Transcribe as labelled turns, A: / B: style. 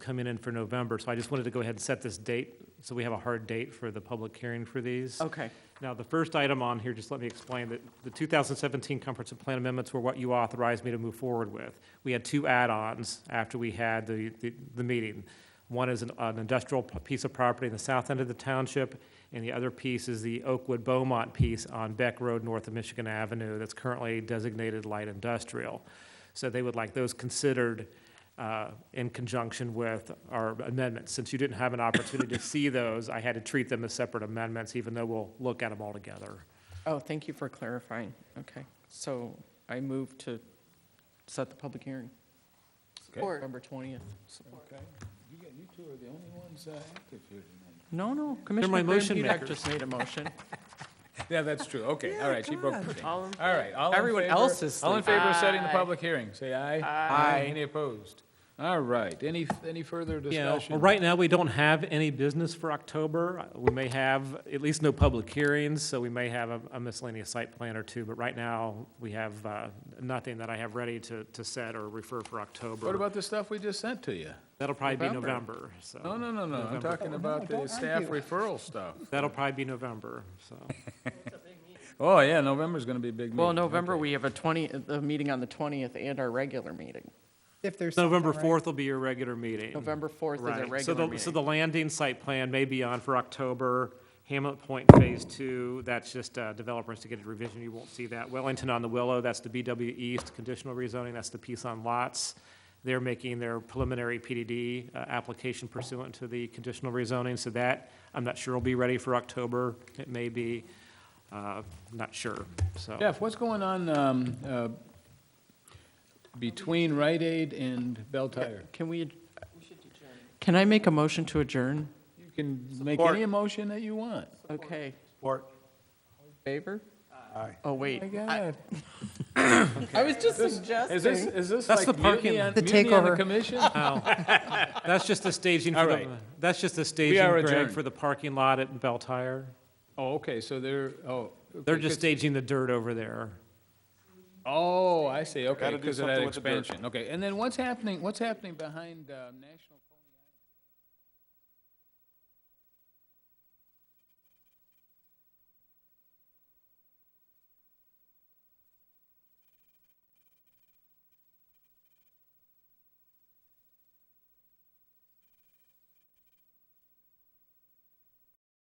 A: coming in for November, so I just wanted to go ahead and set this date, so we have a hard date for the public hearing for these.
B: Okay,
A: Now, the first item on here, just let me explain, that the 2017 comprehensive plan amendments were what you authorized me to move forward with. We had two add-ons after we had the, the- the meeting. One is an an industrial p- piece of property in the south end of the township, and the other piece is the Oakwood Beaumont piece on Beck Road north of Michigan Avenue that's currently designated light industrial. So they would like those considered uh, in conjunction with our amendments. Since you didn't have an opportunity to see those, I had to treat them as separate amendments, even though we'll look at them all together.
B: oh, thank you for clarifying, okay. So I move to set the public hearing, November 20th.
C: Okay, you got, you two are the only ones uh, active here tonight.
B: No, no, Commissioner Graham
A: motion
B: Hudak
A: makers.
B: just made a motion.
C: Yeah, that's true, okay, all right, she broke the chain.
B: All in-
C: All right, all in favor.
B: Everyone else is
C: All in favor of setting the
B: Aye.
C: public hearing, say aye.
B: Aye.
C: Any opposed? All right, any, any further
A: Yeah,
C: discussion?
A: well, right now, we don't have any business for October. We may have, at least no public hearings, so we may have a- a miscellaneous site plan or two, but right now, we have uh, nothing that I have ready to, to set or refer for
C: What
A: October.
C: about the stuff we just sent to you?
A: That'll probably be
C: November?
A: November, so.
C: No, no, no, Oh, no, I'm
A: November.
C: talking about the staff referral stuff.
A: That'll probably be November, so.
C: Oh, yeah, November's gonna be a big meeting.
B: Well, November,
C: okay.
B: we have a 20, the meeting on the 20th and our regular meeting.
D: If there's. something,
A: November
D: right?
A: 4th will be your regular meeting.
B: November 4th is a
A: Right. So
B: regular
A: the, so
B: meeting.
A: the landing site plan may be on for October. Hamlet Point Phase Two, that's just uh, developer instigated revision, you won't see that. Wellington on the Willow, that's the BW East conditional rezoning, that's the piece on lots. They're making their preliminary PDD uh, application pursuant to the conditional rezoning, so that, I'm not sure will be ready for October. It may be, uh, not sure, so.
C: Jeff, what's going on, um, uh, between Rite Aid and Bell Tire?
B: Can we, can I make a motion to adjourn?
C: You can make any motion that you want.
B: Okay,
E: Support.
B: favor?
E: Aye.
B: Oh,
C: My
B: wait,
C: God.
B: I was just
C: Is this,
B: suggesting.
C: is this
A: That's
C: like
A: the parking-
C: mutiny on,
D: The
C: mutiny on the
D: takeover.
C: commission?
A: That's just the staging for
C: All
A: the,
C: right.
A: that's just the staging,
C: are
A: Greg,
C: adjourned.
A: for the parking lot at Bell Tire.
C: Oh, okay, so they're, oh.
A: They're
C: okay,
A: just
C: 'cause-
A: staging the dirt over there.
C: Oh, I see, okay,
E: Gotta do
C: because of that
E: something with the dirt.
C: expansion, okay. And then what's happening, what's happening behind, uh, National?